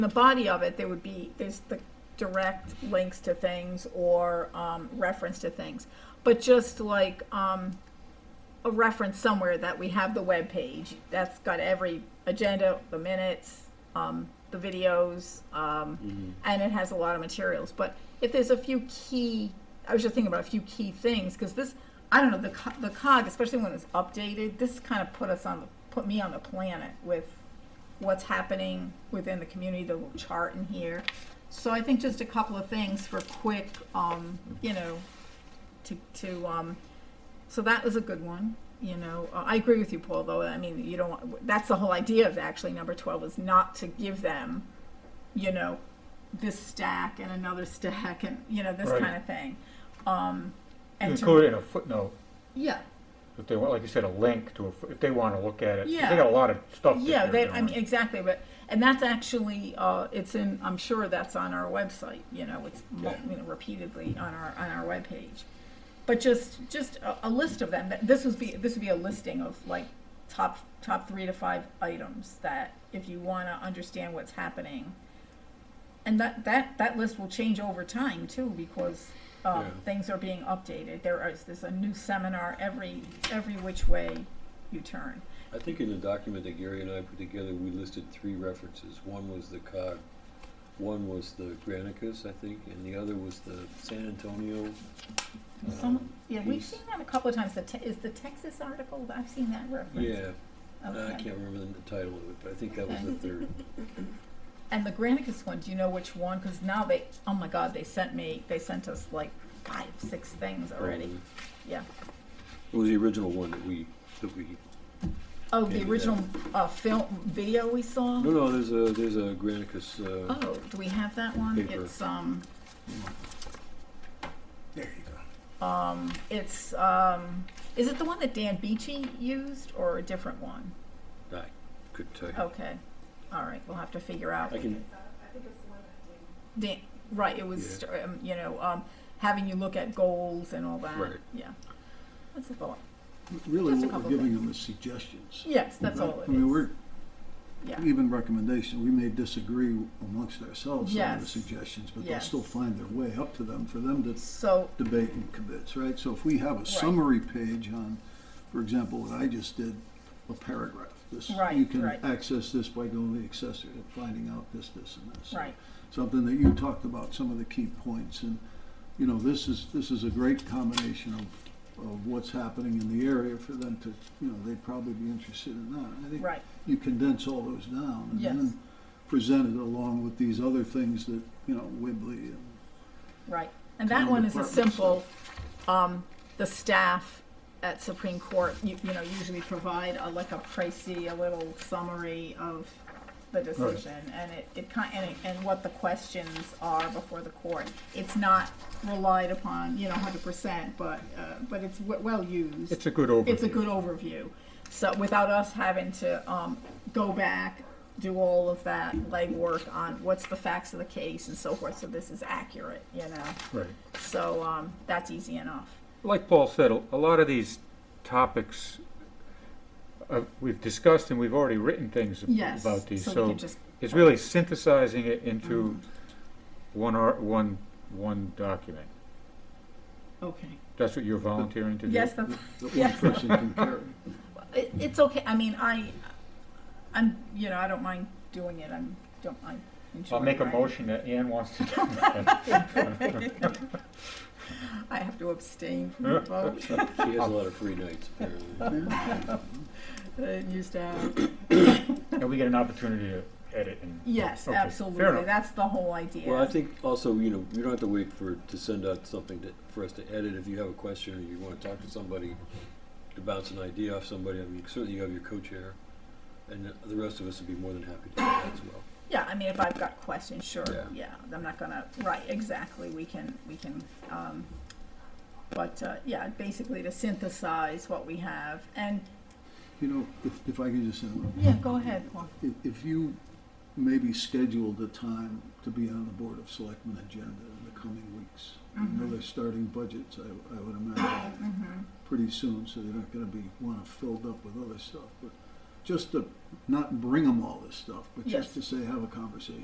the body of it, there would be, there's the direct links to things or um, reference to things. But just like um, a reference somewhere that we have the web page that's got every agenda, the minutes, um, the videos, um, and it has a lot of materials. But if there's a few key, I was just thinking about a few key things because this, I don't know, the co- the cog, especially when it's updated, this kind of put us on the put me on the planet with what's happening within the community, the little chart in here. So I think just a couple of things for quick, um, you know, to, to, um, so that was a good one, you know. Uh, I agree with you, Paul, though. I mean, you don't, want- that's the whole idea of actually number twelve is not to give them, you know, this stack and another stack and, you know, this Right. kind of thing. Um, and to- Include it in a footnote, yeah, if they want, like you said, a link to, a fo- if they want to look at it. 'Cause Yeah. They got a lot of stuff that Yeah, they're that, I mean, doing. exactly, but, and that's actually, uh, it's in, I'm sure that's on our website, you know, it's, mul- Yeah. you know, repeatedly on our, on our webpage. But just, just a, a list of them, that, this would be, this would be a listing of like top, top three to five items that if you wanna understand what's happening. And that, that, that list will change over time too, because, um, Yeah. things are being updated, there is, there's a new seminar every, every which way you turn. I think in the document that Gary and I put together, we listed three references. One was the cog, one was the Granicus, I think, and the other was the San Antonio. Some, um, yeah, we've piece. seen that a couple of times, the, Te- is the Texas article, I've seen that reference. Yeah, uh, I Okay. can't remember the the title of it, but I think that was the third. And the Granicus one, do you know which one? Because now they, oh my God, they sent me, they sent us like five, six things already. Um, Yeah. It was the original one that we, that we, Oh, the Maybe original, uh, film, video we saw? no, no, there's a, there's a Granicus, uh, Oh, do we have that one? Paper. It's, um, There you go. um, it's, um, is it the one that Dan Beachy used or a different one? I could tell you. Okay, all right, we'll have to figure out. I can, Dan, right, it was, um, you know, um, having you look at goals and all that. Right. Yeah. That's a thought. Really, Just a what couple we're giving them is suggestions. Yes, that's Right? all it I mean, is. we're Yeah, even recommendations. We may disagree amongst ourselves on the Yes. suggestions, but they'll Yes. still find their way up to them for them to so, debate and commit, right? So if we have a summary page on, for example, what I just did, a paragraph. This, Right, you can right. access this by going to the accessory and finding out this, this, and this. right, Something that you talked about, some of the key points, and you know, this is this is a great combination of of what's happening in the area for them to, you know, they'd probably be interested in that. I think right, you condense all those down and Yes. then present it along with these other things that you know, Wibley and right. And that Town one is a departments. simple, um, the staff at Supreme Court, you, you know, usually provide a, like a pricey, a little summary of the decision and it, it kind, and, it- and what the questions are before the court. It's not relied upon, you know, hundred percent, but, uh, but it's w- well used. It's a good overview. it's a good overview. So without us having to um, go back, do all of that legwork on what's the facts of the case and so forth, so this is accurate, you know? Right. So um, that's easy enough. Like Paul said, a a lot of these topics, uh, we've discussed and we've already written things ab- Yes. about these, So we so could just, it's really synthesizing it into one ar one, one document. okay. That's what you're volunteering to do? Yes, that's, that one Yes. person can carry. it, it's okay, I mean, I, I'm, you know, I don't mind doing it, I'm, don't, I enjoy I'll make a writing. motion that Ann wants to do. I have to abstain from the vote, she has a lot of free nights, apparently. I used to have. And we get an opportunity to edit and. Yes, Okay, fair absolutely, enough. that's the whole idea. Well, I think also, you know, you don't have to wait for, to send out something to, for us to edit. If you have a question or you want to talk to somebody, to bounce an idea off somebody, I mean, certainly you have your co-chair, and the- the rest of us would be more than happy to do that as well. Yeah, I mean, if I've got questions, sure, Yeah. yeah, I'm not gonna, right, exactly, we can, we can, um, but, uh, yeah, basically to synthesize what we have, and, You know, if, if I could just interrupt. yeah, go ahead, Paul. If, if you maybe scheduled a time to be on the Board of Selectmen agenda in the coming weeks. I know they're starting budgets, I, I would imagine, Mhm. pretty soon, so they're not gonna be, wanna filled up with other stuff. But just to not bring them all this stuff, but Yes. just to say, have a conversation.